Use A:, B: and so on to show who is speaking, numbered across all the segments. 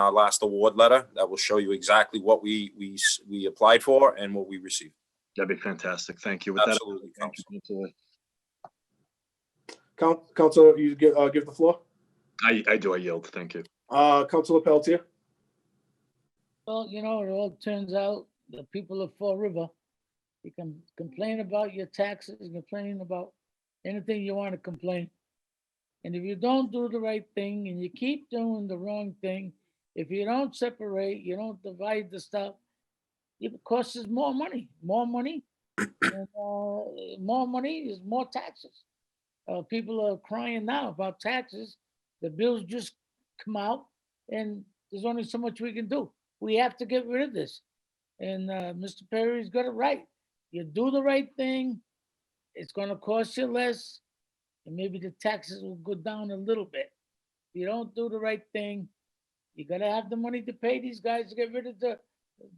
A: our last award letter that will show you exactly what we, we, s- we applied for and what we received.
B: That'd be fantastic. Thank you. With that,
A: Absolutely.
B: thank you, Counselor.
C: Coun- Counselor, you give, uh, give the floor.
B: I, I do, I yield. Thank you.
C: Uh, Counselor Pelletier,
D: Well, you know, it all turns out the people of Fall River, you can complain about your taxes, complain about anything you want to complain. And if you don't do the right thing and you keep doing the wrong thing, if you don't separate, you don't divide the stuff, it costs us more money, more money. and, uh, More money is more taxes. Uh, People are crying now about taxes. The bills just come out and there's only so much we can do we have to get rid of this. And uh, Mr. Perry's got it right. You do the right thing, it's gonna cost you less, and maybe the taxes will go down a little bit. If you don't do the right thing, you gotta have the money to pay these guys to get rid of the,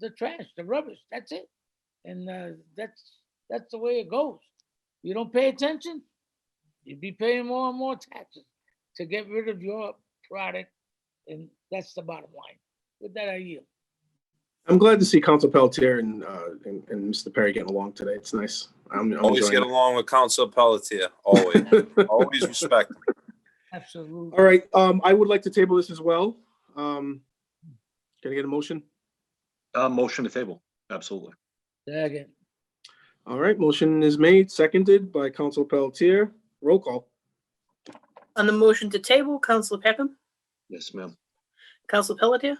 D: the trash, the rubbish, that's it. And uh, that's, that's the way it goes. You don't pay attention, you'd be paying more and more taxes to get rid of your product, and that's the bottom line. With that, I yield.
C: I'm glad to see Counselor Pelletier and, uh, and, and Mr. Perry getting along today. It's nice. I'm, I'm
A: Always get
C: enjoying it.
A: along with Council Pelletier, always, always respect. him.
D: Absolutely.
C: All right, um, I would like to table this as well. Um, can I get a motion?
B: Uh, motion to table. Absolutely.
D: Second,
C: All right, motion is made, seconded by Counselor Pelletier. Roll call.
E: On the motion to table, Council Peckham,
B: Yes, ma'am.
E: Council Pelletier,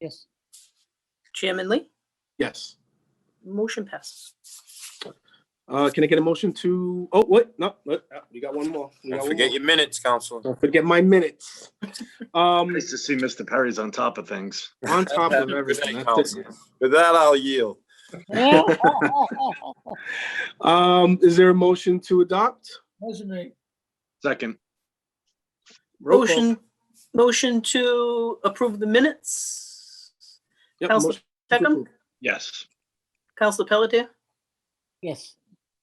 D: yes.
E: Chairman Lee,
C: Yes.
E: motion passes.
C: Uh, can I get a motion to, oh, what? No, what? Uh, You got one more. You got
A: Don't
C: one
A: forget
C: more.
A: your minutes, Counselor.
C: Don't forget my minutes. Um,
B: Nice to see Mr. Perry's on top of things.
C: on
A: Have
C: top
A: a
C: of
A: good
C: everything.
A: night,
C: That's it.
A: Counselor. With that, I'll yield.
D: Motion
C: Um, is there a motion to adopt?
D: made.
B: Second,
C: Roll call.
E: Motion, motion to approve the minutes,
C: Yep,
E: Council
C: motion to
E: Peckham,
C: approve.
B: yes.
E: Council Pelletier,
D: Yes,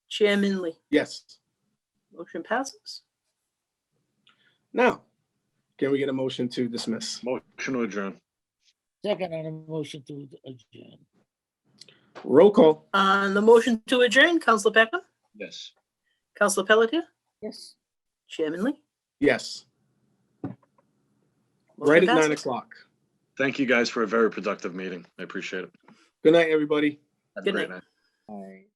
E: Chairman Lee,
C: Yes.
E: motion passes.
C: Now, can we get a motion to dismiss?
B: Motion to adjourn.
D: second on a motion to adjourn.
C: Roll call.
E: On the motion to adjourn, Council Peckham,
B: Yes.
E: Council Pelletier,
D: Yes.
E: Chairman Lee.
C: Yes.
E: motion
C: Right at nine
E: passes.
C: o'clock.
B: Thank you guys for a very productive meeting. I appreciate it.
C: Good night, everybody.
B: Have a
E: Good
B: great
E: night.
B: night.
D: All right.